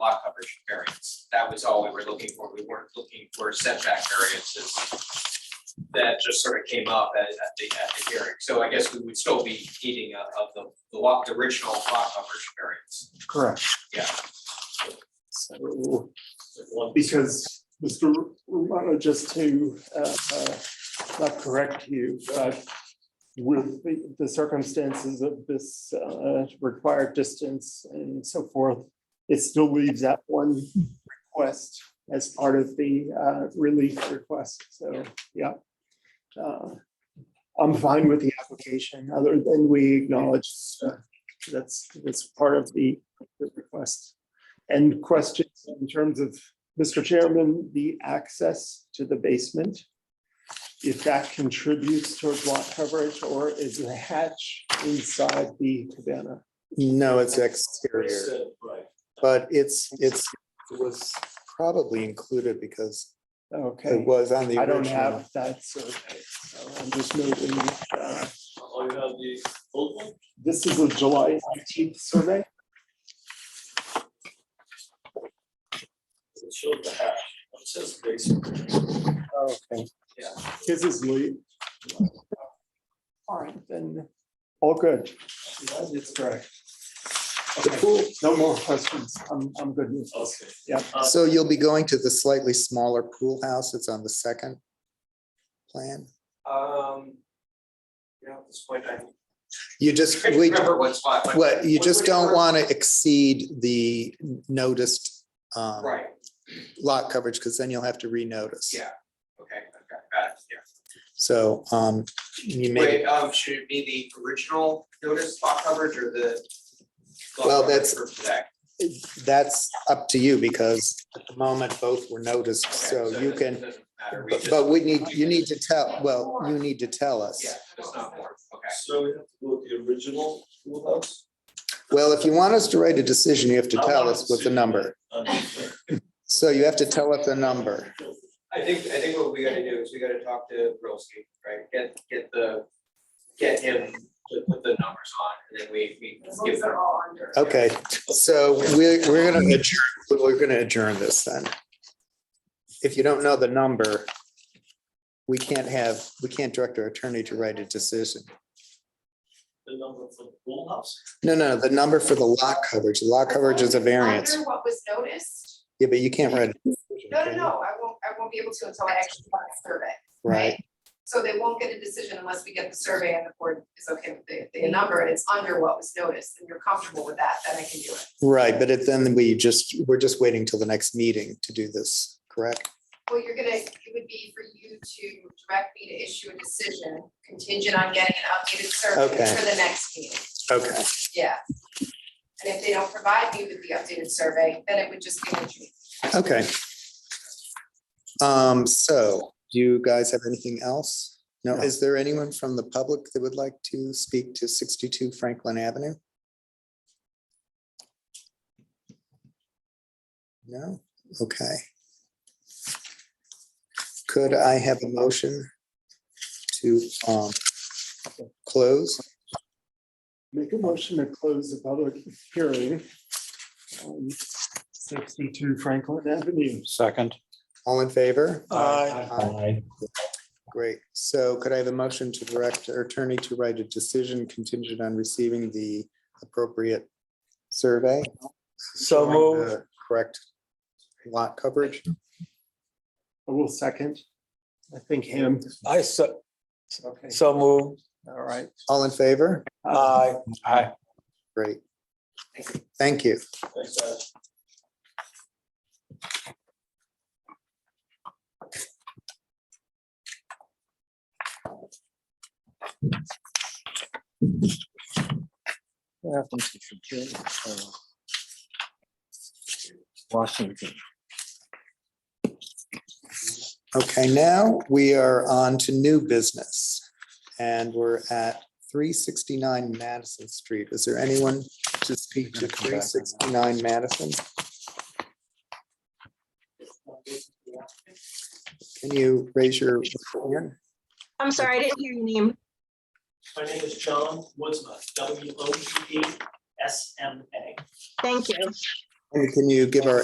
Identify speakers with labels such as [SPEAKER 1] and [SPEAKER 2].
[SPEAKER 1] lot coverage variance. That was all we were looking for. We weren't looking for setback variances. That just sort of came up at, at the, at the hearing. So I guess we would still be eating of of the, the lot, the original lot coverage variance.
[SPEAKER 2] Correct.
[SPEAKER 1] Yeah.
[SPEAKER 2] So, because Mr. Romano, just to, uh, uh, not correct you, but with the- the circumstances of this, uh, required distance and so forth, it still leaves that one request as part of the, uh, relief request, so, yeah. Uh, I'm fine with the application, other than we acknowledge, uh, that's, that's part of the the request. And questions in terms of, Mr. Chairman, the access to the basement? If that contributes towards lot coverage or is the hatch inside the cabana?
[SPEAKER 3] No, it's exterior,
[SPEAKER 1] Right.
[SPEAKER 3] but it's, it's, it was probably included because it
[SPEAKER 2] Okay,
[SPEAKER 3] was on the
[SPEAKER 2] I don't
[SPEAKER 3] original.
[SPEAKER 2] have that survey, so I'm just noting. uh,
[SPEAKER 4] Oh, you have the old one?
[SPEAKER 2] This is a July nineteenth survey.
[SPEAKER 4] It shows the hash. It says basic.
[SPEAKER 2] Okay.
[SPEAKER 1] Yeah.
[SPEAKER 2] His is late. All right, then, all good. It's correct. Okay, no more questions. I'm, I'm good with this.
[SPEAKER 4] Okay.
[SPEAKER 2] Yeah.
[SPEAKER 4] Uh,
[SPEAKER 3] So you'll be going to the slightly smaller pool house. It's on the second plan.
[SPEAKER 1] Um, you know, at this point, I
[SPEAKER 3] You just,
[SPEAKER 1] can't
[SPEAKER 3] we,
[SPEAKER 1] remember what spot. but-
[SPEAKER 3] what, you
[SPEAKER 1] What-
[SPEAKER 3] just
[SPEAKER 1] what-
[SPEAKER 3] don't want to exceed the noticed um,
[SPEAKER 1] Right,
[SPEAKER 3] lot coverage because then you'll have to renotice.
[SPEAKER 1] Yeah. okay, okay, got it, yeah.
[SPEAKER 3] So um, you may,
[SPEAKER 1] Wait, um, should it be the original notice lot coverage or the? lot
[SPEAKER 3] Well,
[SPEAKER 1] coverage
[SPEAKER 3] that's-
[SPEAKER 1] for today?
[SPEAKER 3] that's up to you because at the moment both were noticed, so
[SPEAKER 1] Okay,
[SPEAKER 3] you
[SPEAKER 1] it
[SPEAKER 3] can,
[SPEAKER 1] doesn't matter, we
[SPEAKER 3] but-
[SPEAKER 1] just-
[SPEAKER 3] but we need, you need to tell, well, you need to tell us.
[SPEAKER 1] Yeah, it's not more, okay.
[SPEAKER 4] So we have to go with the original pool house?
[SPEAKER 3] Well, if you want us to write a decision, you have to
[SPEAKER 4] I
[SPEAKER 3] tell
[SPEAKER 4] want
[SPEAKER 3] us what the
[SPEAKER 4] see
[SPEAKER 3] number.
[SPEAKER 4] Understand.
[SPEAKER 3] So you have to tell us a number.
[SPEAKER 1] I think, I think what we gotta do is we gotta talk to Rolski, right, get, get the, get him to put the numbers on, and then we, we give them.
[SPEAKER 3] Okay, so we're, we're gonna adjourn, we're gonna adjourn this then. If you don't know the number, we can't have, we can't direct our attorney to write a decision.
[SPEAKER 4] The number for the pool house?
[SPEAKER 3] No, no, the number for the lot coverage, the lot coverage is a variance.
[SPEAKER 5] Under what was noticed?
[SPEAKER 3] Yeah, but you can't write. a
[SPEAKER 5] No, no,
[SPEAKER 3] decision,
[SPEAKER 5] no, I won't, I won't be able to until I actually have a survey.
[SPEAKER 3] Right,
[SPEAKER 5] So they won't get a decision unless we get the survey and the board is okay with the, the number and it's under what was noticed and you're comfortable with that, then I can do it.
[SPEAKER 3] right, but it- then we just, we're just waiting till the next meeting to do this, correct?
[SPEAKER 5] Well, you're gonna, it would be for you to direct me to issue a decision contingent on getting an updated survey
[SPEAKER 3] Okay.
[SPEAKER 5] for the next meeting,
[SPEAKER 3] Okay,
[SPEAKER 5] yeah. And if they don't provide me with the updated survey, then it would just be a change.
[SPEAKER 3] okay. Um, so, do you guys have anything else? No,
[SPEAKER 2] No.
[SPEAKER 3] is there anyone from the public that would like to speak to sixty-two Franklin Avenue? No, okay. Could I have a motion to, um, close?
[SPEAKER 2] Make a motion to close the public hearing. on Sixty-two Franklin Avenue.
[SPEAKER 6] Second.
[SPEAKER 3] All in favor?
[SPEAKER 2] Aye.
[SPEAKER 6] Aye.
[SPEAKER 3] Great. So could I have a motion to direct our attorney to write a decision contingent on receiving the appropriate survey?
[SPEAKER 2] So
[SPEAKER 3] showing
[SPEAKER 2] moved.
[SPEAKER 3] the Correct lot coverage?
[SPEAKER 2] I will second. I think him.
[SPEAKER 6] I so,
[SPEAKER 2] Okay,
[SPEAKER 6] so move.
[SPEAKER 2] all right.
[SPEAKER 3] All in favor?
[SPEAKER 6] Aye. Aye.
[SPEAKER 3] Great. Thank you.
[SPEAKER 4] Thanks, guys.
[SPEAKER 6] Washington.
[SPEAKER 3] Okay, now we are on to new business. And we're at three sixty-nine Madison Street. Is there anyone to speak to three sixty-nine Madison? Can you raise your hand?
[SPEAKER 7] I'm sorry, I didn't hear your name.
[SPEAKER 4] My name is John Woodsma, W O D E S M A.
[SPEAKER 7] Thank you.
[SPEAKER 3] And can you give our